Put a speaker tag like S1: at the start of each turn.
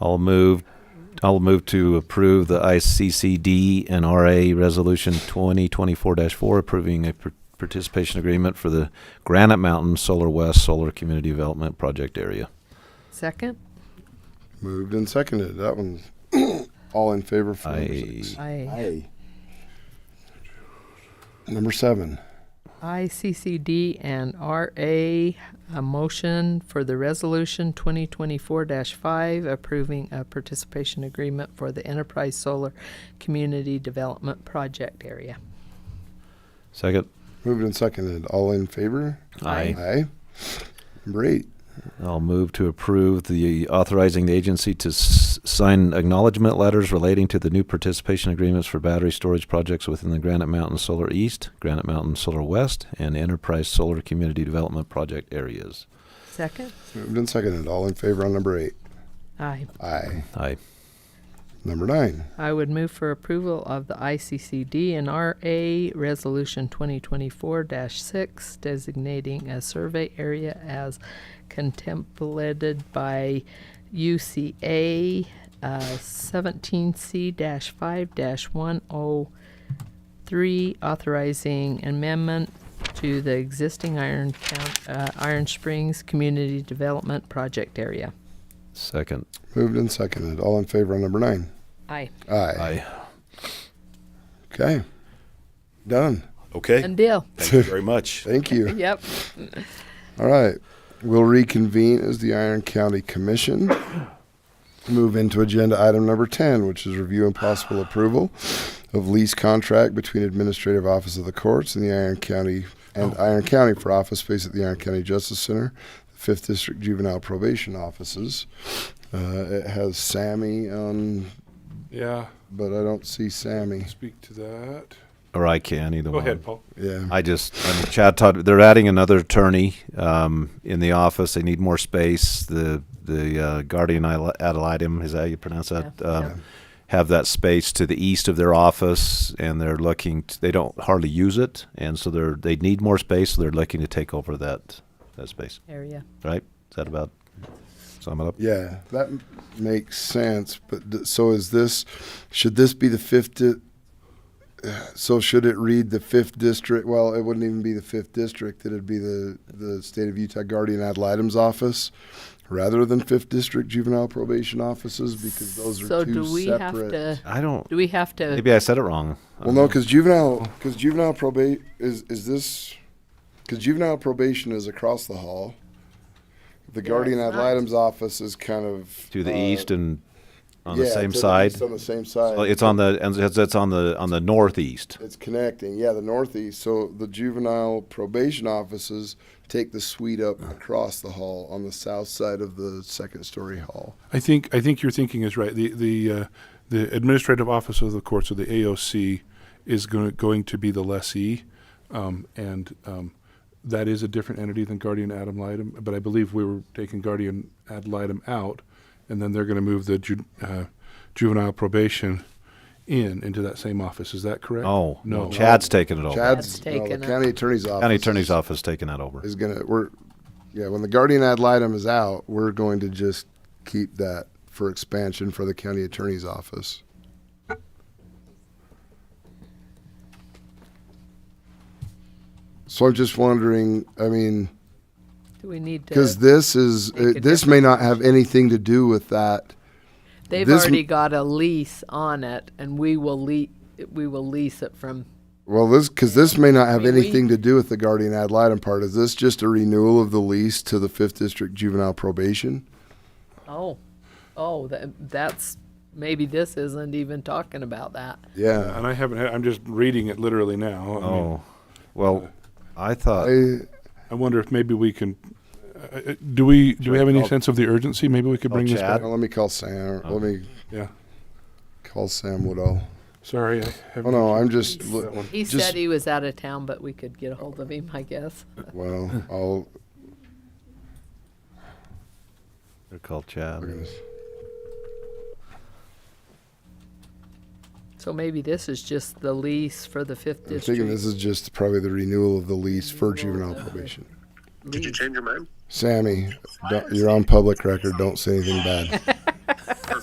S1: I'll move, I'll move to approve the ICCD and RA Resolution 2024-4 approving a par- participation agreement for the Granite Mountain Solar West Solar Community Development Project Area.
S2: Second?
S3: Moved and seconded. That one, all in favor for number
S1: Aye.
S3: six.
S2: I
S3: Aye. Number seven.
S2: ICCD and RA, a motion for the resolution 2024-5 approving a participation agreement for the Enterprise Solar Community Development Project Area.
S1: Second?
S3: Moved and seconded. All in favor? Aye. Number eight.
S1: I'll move to approve the authorizing the agency to s- sign acknowledgement letters relating to the new participation agreements for battery storage projects within the Granite Mountain Solar East, Granite Mountain Solar West, and Enterprise Solar Community Development Project areas.
S2: Second?
S3: Moved and seconded. All in favor on number eight?
S2: Aye.
S3: Aye.
S1: Aye.
S3: Number nine.
S2: I would move for approval of the ICCD and RA Resolution 2024-6 designating a survey area as contemplated by UCA uh, 17C-5-103, authorizing amendment to the existing Iron, Count- uh, Iron Springs Community Development Project Area.
S1: Second.
S3: Moved and seconded. All in favor on number nine?
S2: Aye.
S3: Aye. Okay. Done.
S4: Okay.
S2: And deal.
S4: Thank you very much.
S3: Thank you.
S2: Yep.
S3: All right. We'll reconvene as the Iron County Commission. Move into agenda item number 10, which is review and possible approval of lease contract between Administrative Office of the Courts and the Iron County and Iron County for office space at the Iron County Justice Center, the Fifth District Juvenile Probation Offices. Uh, it has Sammy on,
S5: Yeah,
S3: but I don't see Sammy.
S5: speak to that.
S1: Or I can, either
S5: Go
S1: one.
S5: ahead, Paul.
S3: Yeah.
S1: I just, I mean, Chad Todd, they're adding another attorney um, in the office. They need more space. The the uh, guardian ad litem, is that how you pronounce that?
S2: Yeah,
S1: Um,
S2: yeah.
S1: Have that space to the east of their office, and they're looking. t they don't hardly use it, and so they're they need more space. So they're looking to take over that that space.
S2: Area.
S1: Right? Is that about sum it up?
S3: Yeah, that m- makes sense. But th- so is this? Should this be the fifth? Di- so should it read the fifth district? Well, it wouldn't even be the fifth district. It'd be the the state of Utah guardian ad litem's office, rather than fifth district juvenile probation offices because those are
S2: So
S3: two
S2: do we have
S3: separate.
S2: to,
S1: I don't.
S2: do we have to,
S1: Maybe I said it wrong. I
S3: well,
S1: don't
S3: no,
S1: know.
S3: because juvenile because juvenile probate is is this because juvenile probation is across the hall. The
S2: Yeah,
S3: guardian
S2: it's
S3: ad
S2: not.
S3: litem's office is kind of
S1: to the
S3: uh,
S1: east and on the
S3: Yeah,
S1: same
S3: to
S1: side.
S3: east On the same
S1: So
S3: side.
S1: It's on the and it's it's on the on the northeast.
S3: It's connecting, yeah, the northeast. So the juvenile probation offices take the suite up across the hall on the south side of the second story hall.
S5: I think I think your thinking is right. The the uh, the administrative office of the court, so the AOC, is going going to be the lessee, um, and um, that is a different entity than guardian ad litem. But I believe we were taking guardian ad litem out, and then they're going to move the ju- uh, juvenile probation in into that same office. Is that correct?
S1: Oh, no.
S5: no.
S1: Chad's taking it over.
S3: Chad's,
S2: That's
S3: no, the
S2: taken up.
S3: county attorney's office.
S1: County Attorney's
S3: is-
S1: Office taking that over.
S3: Is gonna, we're, yeah, when the guardian ad litem is out, we're going to just keep that for expansion for the county attorney's office. So I'm just wondering, I mean.
S2: do we need to?
S3: Because this is,
S2: make a
S3: it- this may not have anything to do with that.
S2: They've
S3: This-
S2: already got a lease on it, and we will lea- we will lease it from,
S3: Well, this, because this may not have
S2: mean, we-
S3: anything to do with the guardian ad litem part. Is this just a renewal of the lease to the Fifth District Juvenile Probation?
S2: oh, oh, tha- that's, maybe this isn't even talking about that.
S3: Yeah.
S5: And I haven't. Had, I'm just reading it literally now. I mean,
S1: Oh, well, I thought
S3: I-
S5: I wonder if maybe we can. Uh, uh, do we do we have any sense of the urgency? Maybe we could
S1: Oh,
S5: bring this
S1: Chad?
S5: back.
S3: Let me call Sam,
S5: Uh-huh.
S3: let me
S5: Yeah.
S3: call Sam Woodall.
S5: Sorry. I
S3: Oh,
S5: haven't-
S3: no, I'm just,
S5: That one.
S2: He
S3: Just-
S2: said he was out of town, but we could get a hold of him, I guess.
S3: well, I'll,
S1: they're called Chad.
S2: So maybe this is just the lease for the Fifth
S3: I'm thinking
S2: District
S3: this is just probably the renewal of the lease for juvenile probation.
S2: lease.
S3: Sammy, don't- you're on public record, don't say anything bad.